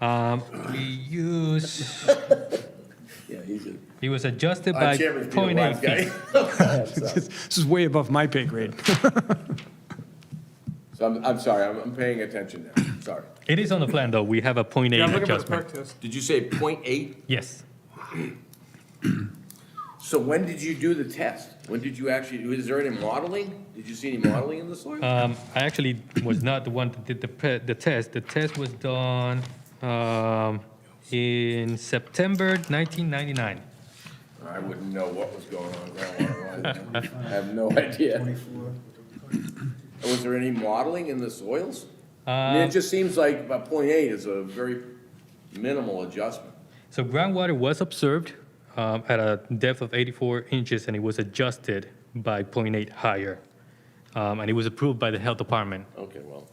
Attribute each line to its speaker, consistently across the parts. Speaker 1: Um, we use,
Speaker 2: Yeah, he's a.
Speaker 1: it was adjusted
Speaker 2: Our
Speaker 1: by
Speaker 2: chairman's
Speaker 1: .8
Speaker 2: been a wise
Speaker 1: feet.
Speaker 2: guy.
Speaker 3: This is way above my pay grade.
Speaker 2: So I'm, I'm sorry, I'm, I'm paying attention now, sorry.
Speaker 1: It is on the plan, though, we have a .8
Speaker 4: Yeah, I'm looking at the
Speaker 1: adjustment.
Speaker 4: perk test.
Speaker 2: Did you say point eight?
Speaker 1: Yes,
Speaker 2: So when did you do the test? When did you actually, was there any modeling? Did you see any modeling in the soil?
Speaker 1: um, I actually was not the one that did the, pe- the test, the test was done, um, in September nineteen ninety-nine.
Speaker 2: I wouldn't know what was going on groundwater-wise. I have no idea. Was there any modeling in the soils? I mean, it just seems like about point eight is a very minimal adjustment.
Speaker 1: So groundwater was observed um, at a depth of 84 inches, and it was adjusted by 0.8 higher. Um, And it was approved by the health department.
Speaker 2: Okay, well.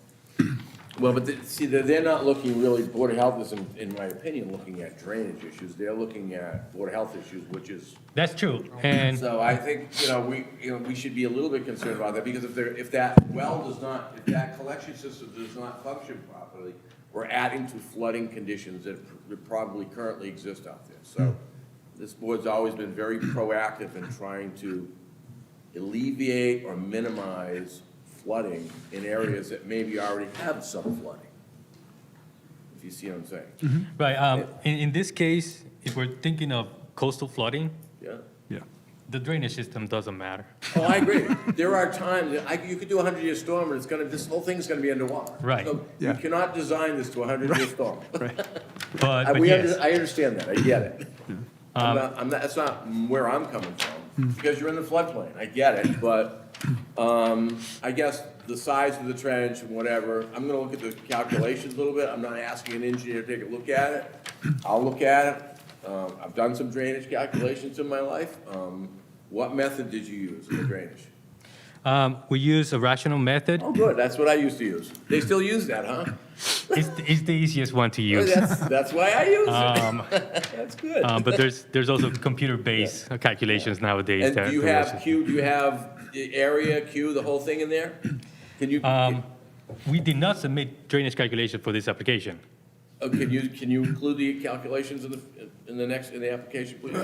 Speaker 2: Well, but the- see, they're, they're not looking really, Board of Health is, in, in my opinion, looking at drainage issues. They're looking at Board of Health issues, which is
Speaker 1: That's true. And
Speaker 2: So I think, you know, we, you know, we should be a little bit concerned about that, because if there, if that well does not, if that collection system does not function properly, we're adding to flooding conditions that pr- probably currently exist out there. So this board's always been very proactive in trying to alleviate or minimize flooding in areas that maybe already have some flooding. If you see what I'm saying?
Speaker 1: right, um, in in this case, if we're thinking of coastal flooding,
Speaker 2: Yeah?
Speaker 3: Yeah.
Speaker 1: the drainage system doesn't matter.
Speaker 2: Oh, I agree. There are times, that I, you could do a hundred-year storm, and it's gonna, this whole thing's gonna be underwater.
Speaker 1: Right.
Speaker 2: So You
Speaker 3: Yeah.
Speaker 2: cannot design this to a hundred-year storm.
Speaker 1: But
Speaker 2: I,
Speaker 1: but
Speaker 2: Uh, we, under-
Speaker 1: yes, Um,
Speaker 2: I understand that, I get it. I'm not, I'm not, that's not where I'm coming from, because you're in the floodplain, I get it, but, um, I guess the size of the trench and whatever, I'm gonna look at the calculations a little bit, I'm not asking an engineer to take a look at it. I'll look at it, um, I've done some drainage calculations in my life, um, what method did you use in the drainage?
Speaker 1: Um, we use a rational method.
Speaker 2: Oh, good, that's what I used to use. They still use that, huh?
Speaker 1: It's the- it's the easiest one to use.
Speaker 2: That's, that's why I use
Speaker 3: Um,
Speaker 2: it. That's good.
Speaker 1: Um, But there's there's also computer-based calculations nowadays.
Speaker 2: And
Speaker 1: that-
Speaker 2: do you
Speaker 1: that
Speaker 2: have
Speaker 1: also-
Speaker 2: Q, do you have the area, Q, the whole thing in there? Can you,
Speaker 1: Um,
Speaker 2: uh,
Speaker 1: We did not submit drainage calculation for this application.
Speaker 2: oh, can you, can you include the calculations in the, in the next, in the application, please?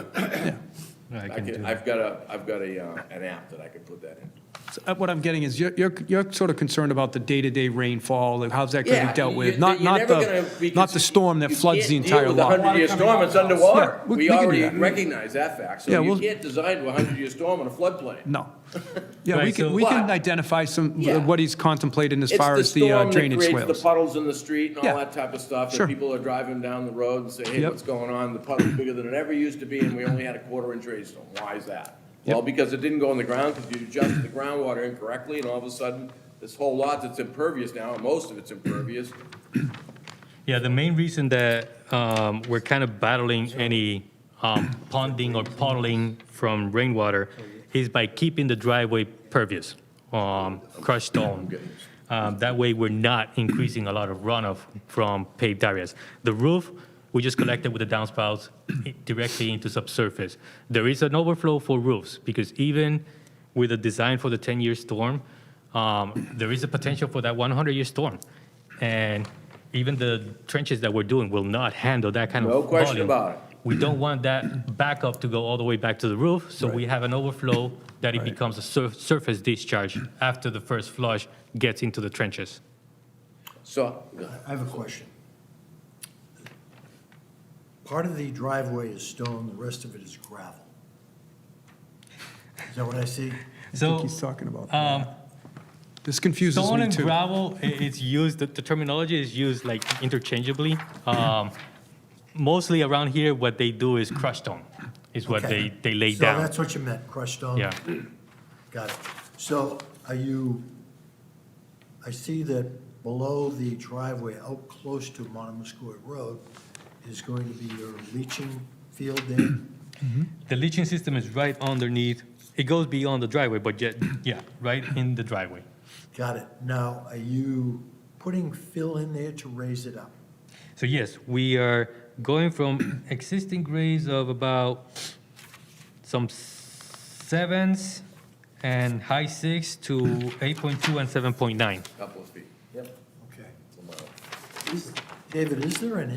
Speaker 2: I
Speaker 1: do
Speaker 2: can,
Speaker 1: that.
Speaker 2: I've got a, I've got a, uh, an app that I could put that in.
Speaker 3: So, uh, What I'm getting is you're, you're, you're sort of concerned about the day-to-day rainfall, like how's that gonna
Speaker 2: Yeah,
Speaker 3: be dealt
Speaker 2: you-
Speaker 3: with?
Speaker 2: you-
Speaker 3: Not,
Speaker 2: you're
Speaker 3: not
Speaker 2: never gonna
Speaker 3: the,
Speaker 2: be
Speaker 3: not the
Speaker 2: cons-
Speaker 3: storm that
Speaker 2: you
Speaker 3: floods
Speaker 2: can't
Speaker 3: the
Speaker 2: deal
Speaker 3: entire
Speaker 2: with a
Speaker 3: lot.
Speaker 2: hundred-year storm, it's underwater.
Speaker 3: Yeah, we- we
Speaker 2: We
Speaker 3: can do
Speaker 2: already
Speaker 3: that.
Speaker 2: recognize that fact,
Speaker 3: Yeah,
Speaker 2: so you
Speaker 3: we'll-
Speaker 2: can't design to a hundred-year storm on a floodplain.
Speaker 3: No. Yeah,
Speaker 1: Right,
Speaker 3: we can,
Speaker 1: so-
Speaker 3: we can
Speaker 2: But-
Speaker 3: identify some,
Speaker 2: Yeah.
Speaker 3: what he's contemplating as
Speaker 2: It's
Speaker 3: far as the uh,
Speaker 2: storm that
Speaker 3: drainage
Speaker 2: creates The
Speaker 3: swales.
Speaker 2: puddles in the street and
Speaker 3: Yeah.
Speaker 2: all that type of stuff.
Speaker 3: Sure.
Speaker 2: And people are driving down the road and say, hey,
Speaker 3: Yep.
Speaker 2: what's going on? The puddle's bigger than it ever used to be and we only had a quarter inch rainstorm. Why is that? Well,
Speaker 3: Yep.
Speaker 2: because it didn't go in the ground because you adjusted the groundwater incorrectly and all of a sudden, this whole lot that's impervious now, and most of it's impervious,
Speaker 1: Yeah, the main reason that um, we're kind of battling any um, ponding or puddling from rainwater is by keeping the driveway pervious, um, crushed stone. Um, That way, we're not increasing a lot of runoff from paved areas. The roof, we just collected with the downspouts directly into subsurface. There is an overflow for roofs, because even with a design for the 10-year storm, um, there is a potential for that 100-year storm. And even the trenches that we're doing will not handle that kind of
Speaker 2: No
Speaker 1: volume.
Speaker 2: question about it.
Speaker 1: We don't want that backup to go all the way back to the roof, so we have an overflow that it becomes a sur- surface discharge after the first flush gets into the trenches.
Speaker 2: so.
Speaker 5: I have a question. Part of the driveway is stone, the rest of it is gravel. Is that what I see?
Speaker 3: I
Speaker 1: So
Speaker 3: think he's talking about,
Speaker 1: um,
Speaker 3: this confuses
Speaker 1: stone
Speaker 3: me
Speaker 1: and
Speaker 3: too.
Speaker 1: gravel, i- it's used, the the terminology is used like interchangeably. Um, Mostly around here, what they do is crush stone, is what they,
Speaker 5: Okay.
Speaker 1: they lay
Speaker 5: So
Speaker 1: down.
Speaker 5: that's what you meant, crushed stone?
Speaker 1: Yeah.
Speaker 5: Got it. So are you, I see that below the driveway, out close to Monomoskoy Road, is going to be your leaching field there?
Speaker 1: The leaching system is right underneath, it goes beyond the driveway, but yet, yeah, right in the driveway.
Speaker 5: Got it. Now, are you putting fill in there to raise it up?
Speaker 1: So yes, we are going from existing grades of about some sevens and high six to 8.2 and 7.9.
Speaker 2: Couple of feet.
Speaker 5: Okay. Is- David, is there an